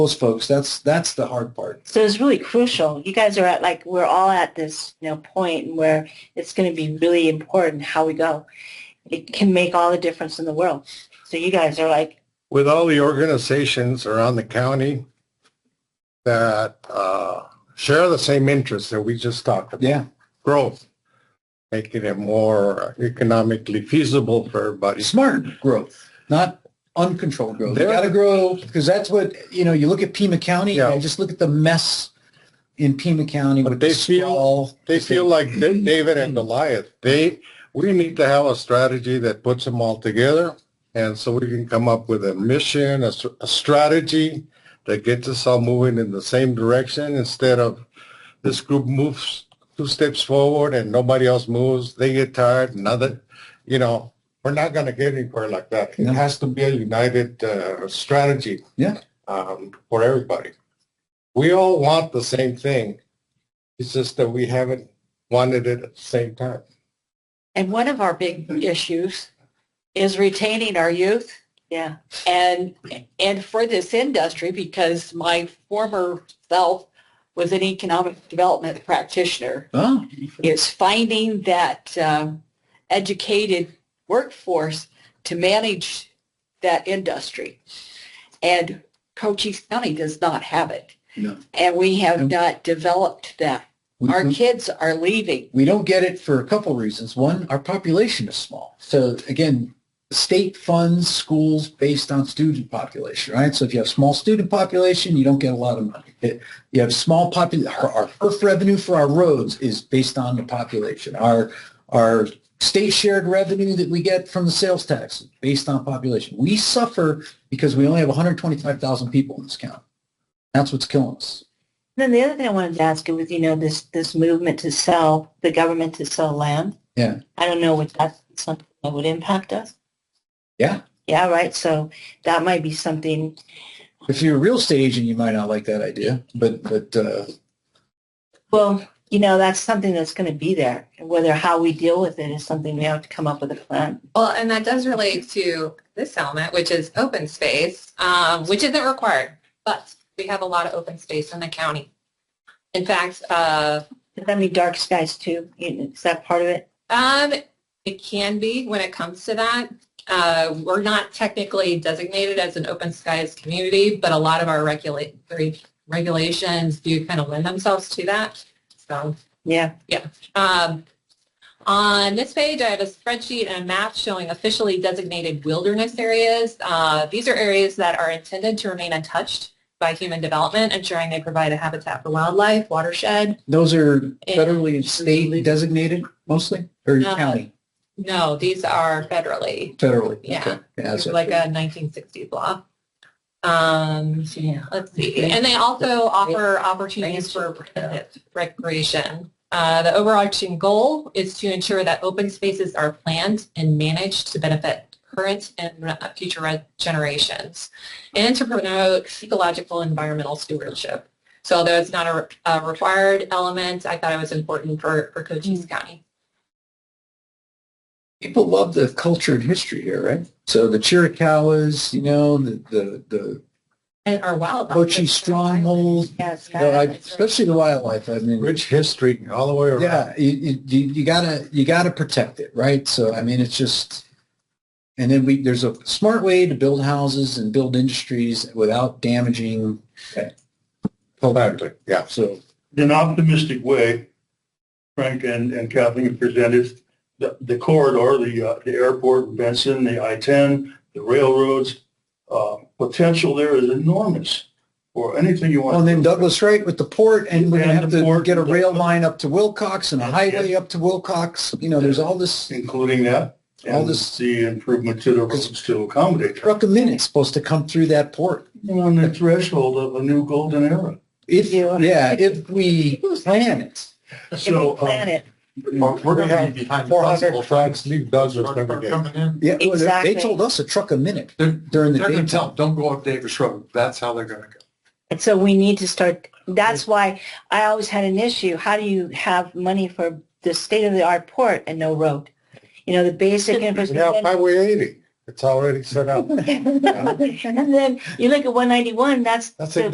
those folks. That's that's the hard part. So it's really crucial. You guys are at like we're all at this you know point where it's going to be really important how we go. It can make all the difference in the world. So you guys are like with all the organizations around the county that uh, share the same interests that we just talked about, Yeah, growth, making it more economically feasible for everybody. smart growth, not uncontrolled growth. You There- got to grow because that's what you know. You look at Pima County Yeah. and just look at the mess in Pima County But with they the feel- sprawl. They feel like David and Goliath. They, we need to have a strategy that puts them all together. And so we can come up with a mission, a, s- a strategy that gets us all moving in the same direction instead of this group moves two steps forward and nobody else moves. They get tired. Another, you know, we're not going to get anywhere like that. It No. has to be a united uh, strategy. Yeah. Um, for everybody. We all want the same thing. It's just that we haven't wanted it at the same time. And one of our big issues is retaining our youth. Yeah. and and for this industry because my former self was an economic development practitioner Oh, is finding that um, educated workforce to manage that industry and Cochise County does not have it No. and we have And- Mm-hmm. not developed that we, our we- kids are leaving we don't get it for a couple reasons. One, our population is small. So again, the state funds schools based on student population, right? So if you have small student population, you don't get a lot of money. It- you have small popul. Our, our IRF revenue for our roads is based on the population. Our our state shared revenue that we get from the sales tax is based on population. We suffer because we only have 125,000 people in this county. That's what's killing us. Then the other thing I wanted to ask you was, you know, this this movement to sell the government to sell land. Yeah. I don't know if that's something that would impact us. Yeah. Yeah. Right. So that might be something. If you're a real estate agent, you might not like that idea, but but uh, Well, you know, that's something that's going to be there. And Whether how we deal with it is something we have to come up with a plan. Well, and that does relate to this element, which is open space, um, which isn't required, but we have a lot of open space in the county. In fact, uh, Does that mean dark skies too? You- Is that part of it? um, it can be when it comes to that. Uh, we're not technically designated as an open skies community, but a lot of our regulatory regulations do kind of lend themselves to that. So. Yeah. Um, on this page, I have a spreadsheet and a map showing officially designated wilderness areas. Uh, these are areas that are intended to remain untouched by human development, ensuring they provide a habitat for wildlife, watershed. Those are federally and Yeah. state designated mostly, or Uh, county, No, these are federally, federally? yeah. Okay. Yeah, These so- are like a 1960s law. Um, Yeah. Let's see. And they also offer opportunities for protective recreation. Uh, the overarching goal is to ensure that open spaces are planned and managed to benefit current and uh, future re- generations and to promote ecological environmental stewardship. So although it's not a, re- a required element, I thought it was important for, for Mm. Cochise County. People love the culture and history here, right? So the Chiricahuas, you know, the, the, the And our wildlife. Cochise stronghold, Yeah. you know, I- sky. especially the wildlife. I mean, Rich history all the way around. yeah, you, you- you, you gotta, you gotta protect it, right? So, I mean, it's just, and then we, there's a smart way to build houses and build industries without damaging, Exactly. Yeah. so. in an optimistic way, Frank and, and Kathleen presented the, the corridor, the, uh, the airport, Benson, the I-10, the railroads. Uh, potential there is enormous for anything you want. Well, and then Douglas Wright with the port, and we're gonna have to get a rail line up to Wilcox and a highway up to Wilcox. You know, there's all this Including that. All And this- the improvement to the roads to accommodate. that. truck a minute supposed to come through that port. On the threshold of a new golden era. If, Yeah. yeah, if we plan it. If we So, plan um, it. We're going to have behind four hundred tracks leave Douglas every Coming day. in, Yeah, well, they- Exactly. they told us a truck a minute They're- during the they're gonna day. tell, 'em, don't go up Davis Road. That's how they're gonna go. And so we need to start, that's why I always had an issue. How do you have money for the state-of-the-art port and no road? You know, the basic We have infrastructure. Highway eighty. It's already set up. And then you look at 191, that's That's the